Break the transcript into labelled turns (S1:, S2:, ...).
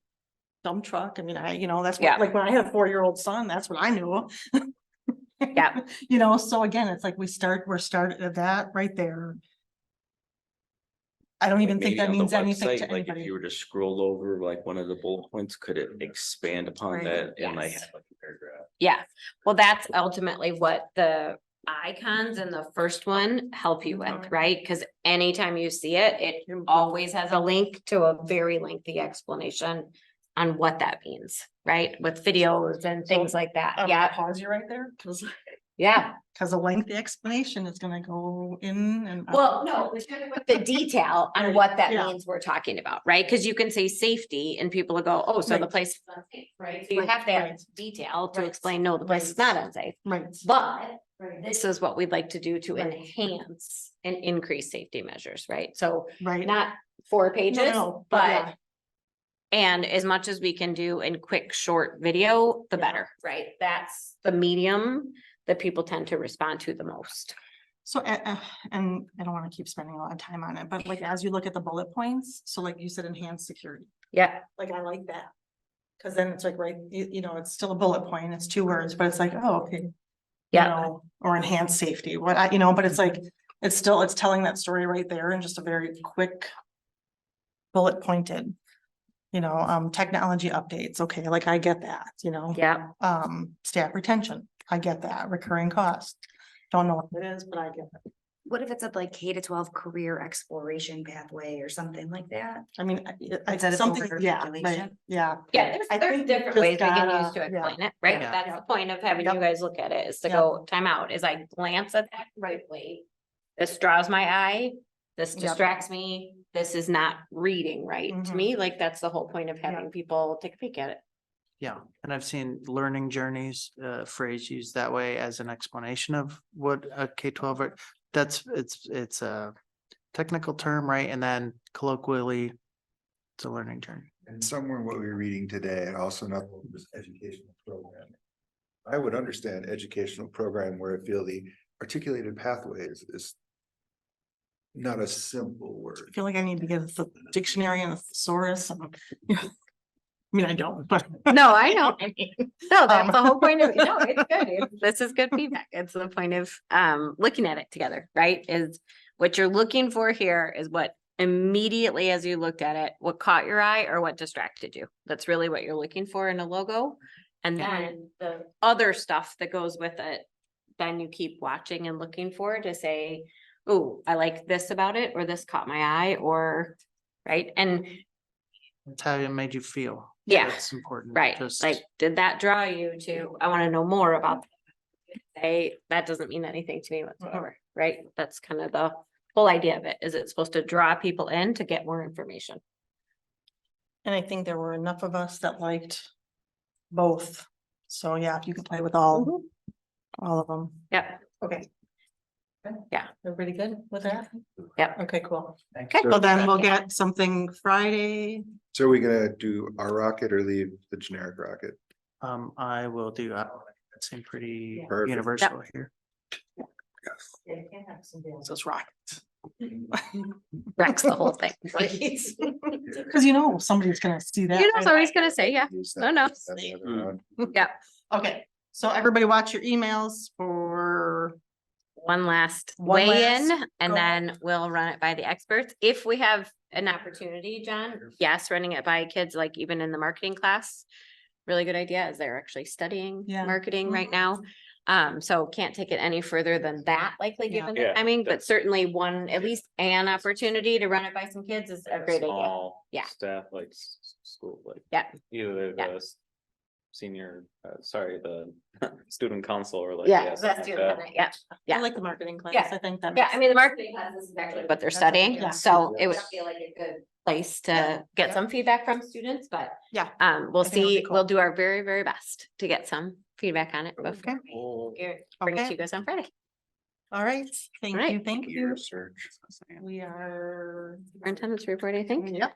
S1: dump truck. I mean, I, you know, that's
S2: Yeah.
S1: what, like, when I had a four-year-old son, that's what I knew.
S2: Yeah.
S1: You know, so again, it's like we start, we're started at that right there. I don't even think
S3: Maybe
S1: that
S3: on the
S1: means anything to
S3: website, Like if
S1: anybody. Mm-hmm.
S3: you were to scroll over like one of the bullet points, could it expand upon
S1: Right.
S3: that and like
S2: Yes.
S3: have like a paragraph?
S2: Yeah, well, that's ultimately what the icons in the first one help you with, right? Because anytime you see it, it always has a link to a very lengthy explanation on what that means, right? With videos and things like that.
S1: I'm gonna
S2: Yeah,
S1: Pause you right there, cause,
S2: yeah.
S1: 'cause a lengthy explanation is gonna go in and. out.
S2: Well, no, it's just with the detail on
S1: Right,
S2: what that
S1: yeah.
S2: means we're talking about, right? Because you can say safety and people will go, oh, so the
S1: Right.
S2: place is unsafe, right? So you
S1: Right,
S2: have
S1: right.
S2: that detail to
S1: Right.
S2: explain, no, the place is not unsafe.
S1: Right.
S2: But this is what we'd like to do to
S1: Right.
S2: enhance and increase safety measures, right? So
S1: Right.
S2: not four
S1: No,
S2: pages,
S1: no, yeah,
S2: but, and as much as we can do in quick, short video, the
S1: Yeah.
S2: better, right? That's the medium that people tend to respond to the most.
S1: So, uh, uh, and I don't wanna keep spending a lot of time on it, but like, as you look at the bullet points, so like you said, enhanced security.
S2: Yeah,
S1: like I like that. Cause then it's like, right, you, you know, it's still a bullet point, it's two words, but it's like, oh, okay. you
S2: Yeah.
S1: know, Or enhance safety, what I, you know, but it's like, it's still, it's telling that story right there in just a very quick. Bullet pointed. You know, um, technology updates, okay, like I get that, you know,
S2: yeah,
S1: um, staff retention, I get that, recurring cost. Don't know what it is, but I get it.
S4: What if it's a like K to twelve career exploration pathway or something like that?
S1: I mean, I- I,
S4: Is that
S1: I,
S4: its
S1: something,
S4: overview
S1: yeah, right,
S4: calculation?
S1: yeah.
S2: yeah. There's,
S1: I
S2: there's
S1: think we
S2: different
S1: just
S2: ways we can
S1: gotta-
S2: use to
S1: yeah,
S2: explain it, right?
S4: yeah.
S2: That's the point of having you
S1: Yep.
S2: guys look at it is to
S1: Yep.
S2: go time out. As I glance at that rightly. This draws my eye, this
S1: Yep.
S2: distracts me, this is not reading right to
S1: Mhm.
S2: me, like that's the whole point of having people take a peek at it.
S5: Yeah, and I've seen learning journeys uh phrase used that way as an explanation of what a K twelve or that's it's it's a technical term, right? And then colloquially, it's a learning journey.
S6: And somewhere in what we were reading today, and also another one was educational program. I would understand educational program where I feel the articulated pathways is not a simple
S1: I
S6: word.
S1: feel like I need to get a dictionary and a thesaurus and, you know, I mean, I don't, but.
S2: No, I know. No, that's
S1: Um,
S2: the whole point of, no, it's good. It's- This is good feedback. It's the point of um looking at it together, right? Is what you're looking for here is what immediately as you looked at it, what caught your eye or what distracted you. That's really what you're looking for in a logo. And
S5: Yeah.
S2: then the other stuff that goes with it, then you keep watching and looking for to say, oh, I like this about it, or this caught my eye, or, right? And
S5: That's how it made you feel.
S2: Yeah.
S5: That's important.
S2: Right,
S5: just-
S2: like, did that draw you to, I wanna know more about. Hey, that doesn't mean anything to me whatsoever, right? That's kind of the whole idea of it, is it's supposed to draw people in to get more information.
S1: And I think there were enough of us that liked both. So yeah, if you could play with all, all of them.
S2: Yep,
S1: Okay.
S2: Mm-hmm. Yeah.
S1: Everybody good with that?
S2: Yep.
S1: Okay, cool.
S2: okay,
S1: So then we'll get something Friday.
S6: So are we gonna do our rocket or leave the generic rocket?
S5: Um, I will do, I don't- that seemed pretty
S6: Perfect.
S5: universal here.
S1: Those rockets.
S2: Rex the whole thing.
S1: Cause you know, somebody's gonna see that.
S2: You know,
S1: right
S2: so
S1: away.
S2: he's gonna say, yeah,
S6: Use
S2: No,
S6: that-
S2: no.
S6: that's the other one.
S1: Mm-hmm.
S2: yeah,
S1: Okay, so everybody watch your emails for
S2: one last
S1: One
S2: weigh in,
S1: last
S2: and
S1: go.
S2: then we'll run it by the experts, if we have an opportunity, John. Yes, running it by kids, like even in the marketing class, really good idea, as they're actually studying
S1: Yeah.
S2: marketing right
S1: Mhm.
S2: now. Um, so can't take it any further than that, likely
S1: Yeah.
S2: given the
S3: Yeah,
S2: timing, but
S3: that's-
S2: certainly one, at least an opportunity to run it by some kids is a great idea.
S3: Small
S2: Yeah.
S3: Staff like s- s- school, like.
S2: Yeah.
S3: Either
S2: Yeah.
S3: the s- senior, uh, sorry, the student council or like.
S2: Yeah,
S3: something
S2: that's
S3: like
S2: doing
S3: that.
S2: that, yeah,
S1: I
S2: Yeah.
S1: like the marketing class.
S2: Yeah.
S1: I think that.
S2: yeah,
S1: makes-
S2: I mean, the marketing class is actually what they're
S4: That's what they're
S2: studying,
S1: doing.
S2: so
S6: Yeah.
S2: it would feel like a good place to get
S1: Yeah.
S2: some feedback from students, but
S1: Yeah.
S2: Um, we'll
S1: I think it'll be
S2: see,
S1: cool.
S2: we'll do our very, very best to get some feedback on it before we
S3: Oh,
S2: get- bring it to
S1: Okay.
S2: you guys on Friday.
S1: All right, thank
S2: right.
S1: you, thank you.
S6: Research.
S1: We are.
S2: Superintendent's report, I think.
S1: Yep.